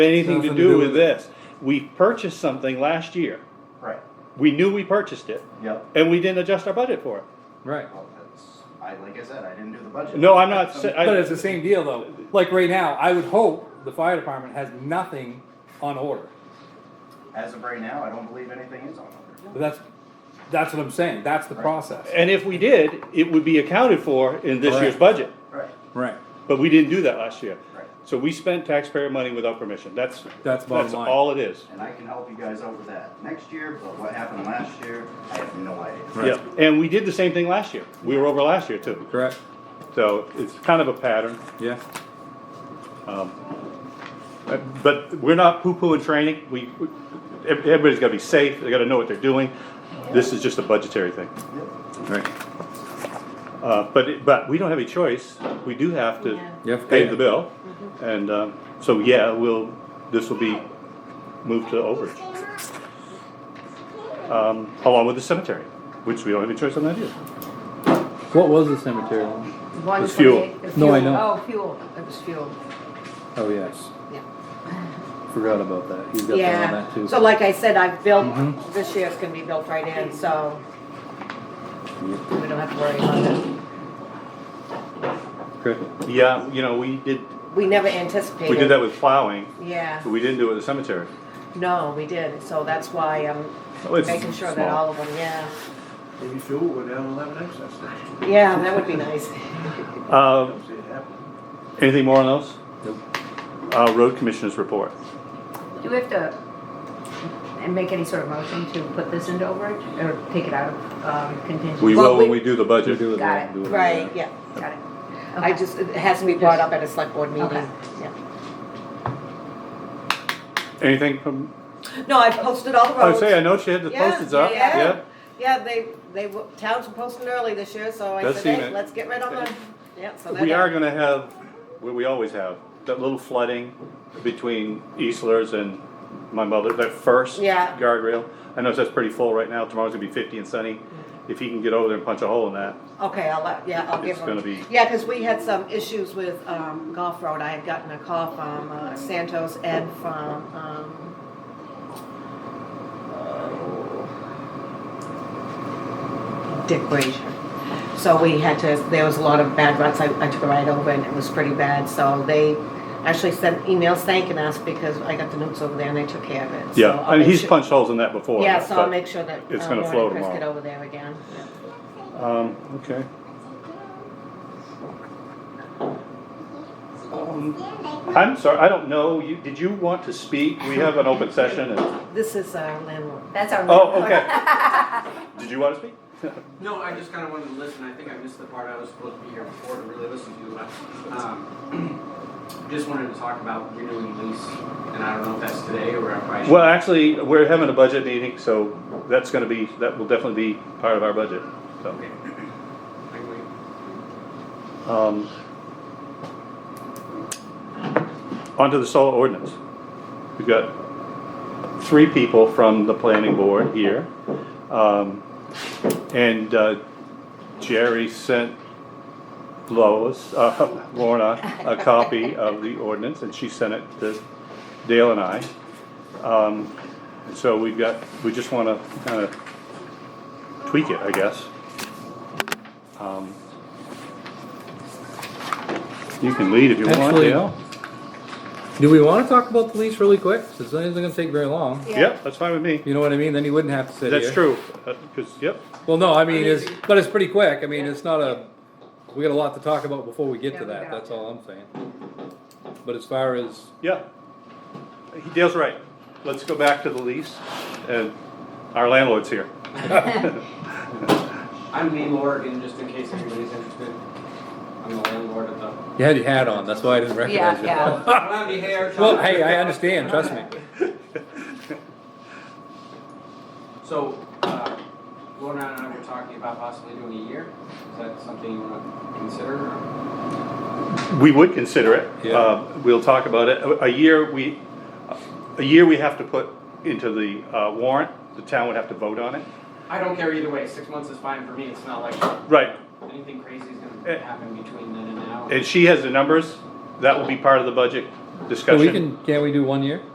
anything to Nothing to do do with with it. this. We purchased something last year. Right, We knew we purchased it yep. and we didn't adjust our budget for it. Right. Well, that's, I, like I said, I didn't do the budget. No, I'm not, sa- But I, it's the same deal though. Like right now, I would hope the fire department has nothing on order. As of right now, I don't believe anything is on order. But that's, that's what I'm saying. That's the process. and if we did, it would be accounted for in this year's Correct. budget. Right, Right. But we didn't do that last year. Right. So we spent taxpayer money without permission. That's, That's that's bottom line. all it is. and I can help you guys out with that next year, but what happened last year, I have no idea. Right. Yeah, and we did the same thing last year. We were over last year too. Correct. So it's kind of a pattern. Yeah. Uh, But we're not poo-pooing training. We, we- ev- everybody's gotta be safe. They gotta know what they're doing. This is just a budgetary thing. Yep. Right. Uh, but, it- but we don't have a choice. We do have to You have to pay pay the it. bill. Mm-hmm. And, um, so yeah, we'll, this will be moved to overage. Um, along with the cemetery, which we don't have a choice on that either. What was the cemetery? One It's fuel. twenty-eight. No, I Fuel. know. Oh, fuel, it was fuel, Oh, yes. yeah. Forgot about that. He's got that on that Yeah, too. so like I said, I've Mhm. built, this year's gonna be built right in, so we don't have to worry about that. Good. Yeah, you know, we did, We never anticipated. we did that with plowing, Yeah, but we didn't do it with the cemetery. no, we did, so that's why I'm Oh, it's making sure small. that all of them, yeah. Maybe fuel will go down and have an excess next year. Yeah, that would be nice. Uh, Don't see it happen. anything more on those? Nope. Uh, road commissioners report. Do we have to and make any sort of motion to put this into overage or take it out of um, contingency? We Well, will when we- we do the budget. Do it Got then, it. do it Right, then. yeah, Got it. I Okay. just, it has to be brought up at a select board meeting, Okay. yeah. Anything from, No, I've posted all the I roads. would say, I know she had the Yeah, postage up, yeah. yeah. Yeah, they, they, w- towns were posting early this year, so I That's said, seen hey, it. let's get rid of them. Yeah, so that. We are gonna have, what we always have, that little flooding between Eastlers and my mother, that first Yeah. guardrail. I know that's pretty full right now, tomorrow's gonna be fifty and sunny. If he can get over there and punch a hole in that, Okay, I'll let, yeah, I'll give It's gonna them. be- Yeah, because we had some issues with um, Golf Road. I had gotten a call from uh, Santos Ed from, um, uh, Dick Brazier. So we had to, there was a lot of bad ruts. I, I took a ride over and it was pretty bad. So they actually sent emails thanking us because I got the notes over there and they took care of it. So yeah, I'll and make he's sure- punched holes in that before. Yeah, so I'll but- make sure that. it's uh, gonna Lauren flow and Chris tomorrow. Get over there again. Yeah. Um, okay. Um, I'm sorry, I don't know, you, did you want to speak? We have an open session and, This is our landlord. That's our. oh, okay. Did you wanna speak? No, I just kind of wanted to listen. I think I missed the part I was supposed to be here before to really listen to, but um, just wanted to talk about renewing lease, and I don't know if that's today or if I should. Well, actually, we're having a budget meeting, so that's gonna be, that will definitely be part of our budget, so. Okay. I can wait. um, Onto the solar ordinance. We've got three people from the planning board here. Um, And uh, Jerry sent Lois, uh, Lorna, a copy of the ordinance, and she sent it to Dale and I. Um, So we've got, we just wanna kinda tweak it, I guess. Um, You can lead if you want, Actually, Dale. do we want to talk about the lease really quick? It's not even going to take very long. Yep, that's fine with me. You know what I mean? Then you wouldn't have to sit here. That's true, because, yep, Well, no, I mean, it's, but it's pretty quick, I mean, it's not a, we got a lot to talk about before we get Yeah, to we that, got- that's all I'm saying. But as far as, yeah. He- Dale's right. Let's go back to the lease, and our landlord's here. I'm Lee Morgan, just in case anybody's interested. I'm the landlord of the. you had your hat on, that's why I didn't recognize you. Yeah, I don't have any hair. Well, hey, I understand, trust me. So, uh, Lorna and I were talking about possibly doing a year. Is that something you want to consider? or- We would consider it. Yeah. Uh, We'll talk about it. A- A year, we, a year we have to put into the uh, warrant. The town would have to vote on it. I don't care either way. Six months is fine for me. It's not like Right, anything crazy is Eh. gonna happen between then and now. and she has the numbers. That will be part of the budget discussion. we can, can't we do one year?